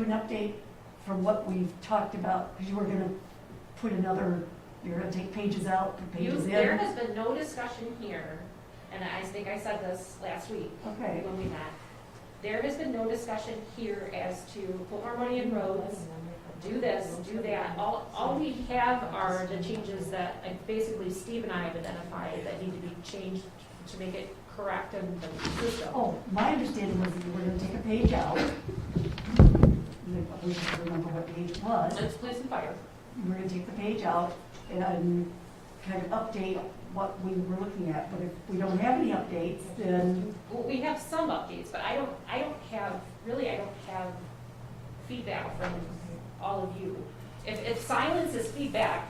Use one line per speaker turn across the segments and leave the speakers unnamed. An update from what we've talked about, because you were gonna put another, you're gonna take pages out, put
You,
pages
there
in.
has been no discussion here, and I think I said this last week
Okay,
when we met. There has been no discussion here as to put more money in roads, do this, do that. All, all we have are the changes that uh, basically Steve and I have identified that need to be changed to make it correct and the system.
oh, my understanding was that you were gonna take a page out. I wish I could remember what page it was.
It's police and fire.
You were gonna take the page out and kind of update what we were looking at, but if we don't have any updates, then,
Well, we have some updates, but I don't, I don't have, really, I don't have feedback from all of you. If, if silence is feedback,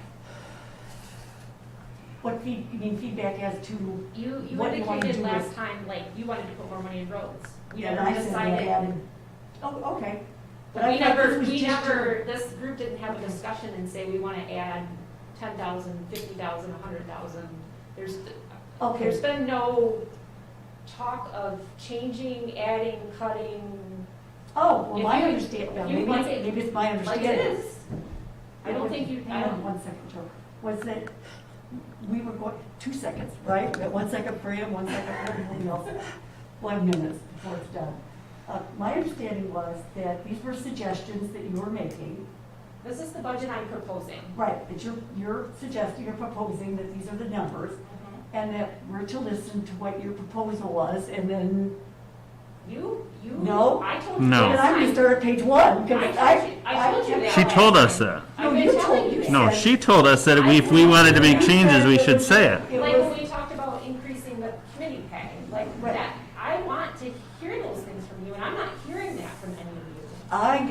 what feed, you mean feedback as to,
You, you
What do you wanna
indicated
do
last
with-
time, like, you wanted to put more money in roads. We
yeah, and
never
I said that I
decided,
added, oh, okay. But
but
I
we
thought this
never,
was
we
just to-
never, this group didn't have a discussion and say, we wanna add ten thousand, fifty thousand, a hundred thousand. There's,
Okay,
there's been no talk of changing, adding, cutting,
Oh, well,
If
my
you-
understanding,
you
maybe
like
it's,
it
maybe it's my
like
understanding.
this. I don't think you, I
Hang on
don't,
one second, Joe. Was that we were going, two seconds, right? We got one second for him, one second for everybody else. One minute before it's done. Uh, My understanding was that these were suggestions that you were making,
this is the budget I'm proposing.
right, that you're, you're suggesting, you're proposing that these are the numbers, and that we're to listen to what your proposal was, and then,
You, you.
No.
I told you
No.
and
last
I'm gonna
time.
start at page one, because
I
I.
told you- I told you that.
She told us that.
No,
I've been
you
telling
told-
you
you
that.
No, she told us that if we wanted to make changes, we should say it.
It
Like
was-
when we talked about increasing the committee pay, like
Right.
that, I want to hear those things from you, and I'm not hearing that from any of you.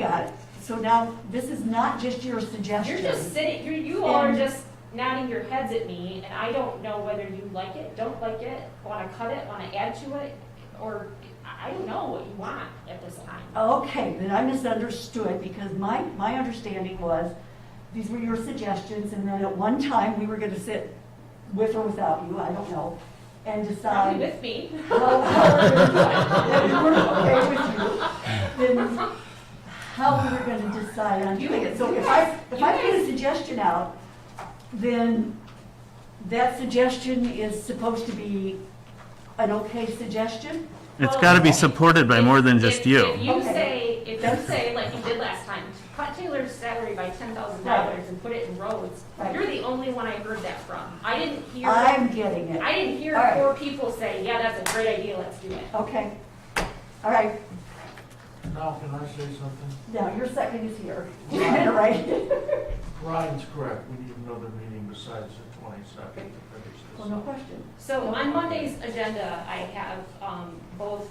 I got it. So now, this is not just your suggestion.
You're just sitting, you, you all are
And-
just nodding your heads at me, and I don't know whether you like it, don't like it, wanna cut it, wanna add to it, or, I I don't know what you want at this time.
Okay, then I misunderstood, because my, my understanding was, these were your suggestions, and then at one time, we were gonna sit with or without you, I don't know, and
Probably
decide.
with me,
how- how- That we were okay with you, then how we were gonna decide on
You-
doing it. So
you
if
guys-
I, if
you
I put a
guys-
suggestion out, then that suggestion is supposed to be an okay suggestion?
It's gotta be supported by more than
If-
just
If
you.
you
Okay.
say, if you
That's-
say, like you did last time, cut Taylor's salary by ten thousand dollars and put it in roads,
Right.
you're the only one I heard that from. I didn't hear, I
I'm getting it.
didn't hear
All right.
four people say, yeah, that's a great idea, let's do it.
Okay, all right,
Now, can I say something?
now your second is here, right?
Ryan's correct, we need another meeting besides the twenty-second to finish
Well,
this.
no question.
So on Monday's agenda, I have, um, both,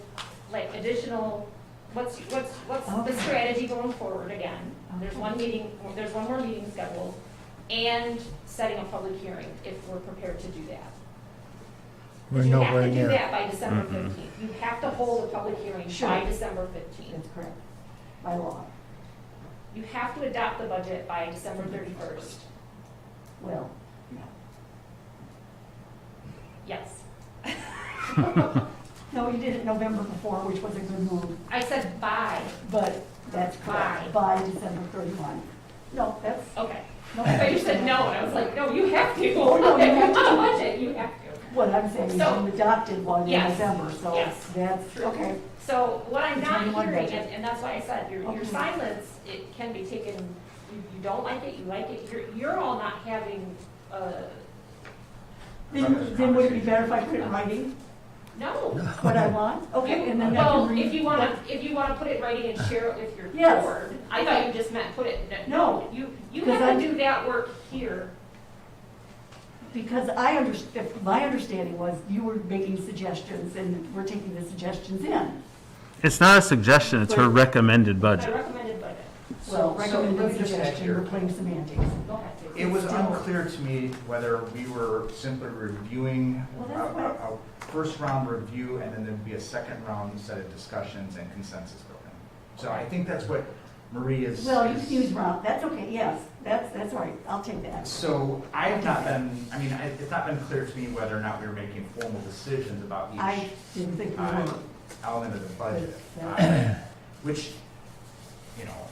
like additional, what's, what's, what's
Okay.
the strategy going forward again? There's
Okay.
one meeting, there's one more meeting scheduled, and setting a public hearing if we're prepared to do that.
We're
You have
nowhere
to do
near.
that by December
Mhm.
fifteenth. You have to hold a public hearing by
Sure.
December fifteenth.
That's correct, by law.
You have to adopt the budget by December thirty-first.
Well,
Yes.
no, you did it November before, which was a good move,
I said by,
but that's correct, by December 31. No, that's,
okay.
no.
So you said no, and I was like, no, you have to.
Oh, no, you have to.
On a budget, you have to.
What I'm saying is
So-
you adopted one in
Yes.
November, so
Yes.
that's, okay.
So what I'm
The 21
not hearing,
budget.
and, and that's why I said, your, your
Okay.
silence, it can be taken, you, you don't like it, you like it, you're, you're all not having, uh,
Then, then would it be better if I put it in writing,
no.
what I want? Okay, and then I can
Well,
read.
if you wanna, if you wanna put it in writing and share it with your
Yes.
board, I thought you just meant put it,
No.
no, you, you
'Cause
have
I'm-
to do that work here.
Because I under, if my understanding was you were making suggestions and we're taking the suggestions in.
It's not a suggestion, it's her recommended
I
budget.
recommended budget,
Well,
So, so let
recommended
me just ask
suggestion, we're
here.
playing semantics.
go ahead.
It was
Still.
unclear to me whether we were simply reviewing
Well,
a,
that's what-
a- a first round review and then there'd be a second round set of discussions and consensus building. So I think that's what Marie is.
Well, you
is-
can use Rob, that's okay, yes, that's, that's all right, I'll take that.
So I have not been, I mean, I- it's not been clear to me whether or not we were making formal decisions about
I
each
didn't think we
uh,
were.
element of the budget.
Yes,
uh, Which, you know,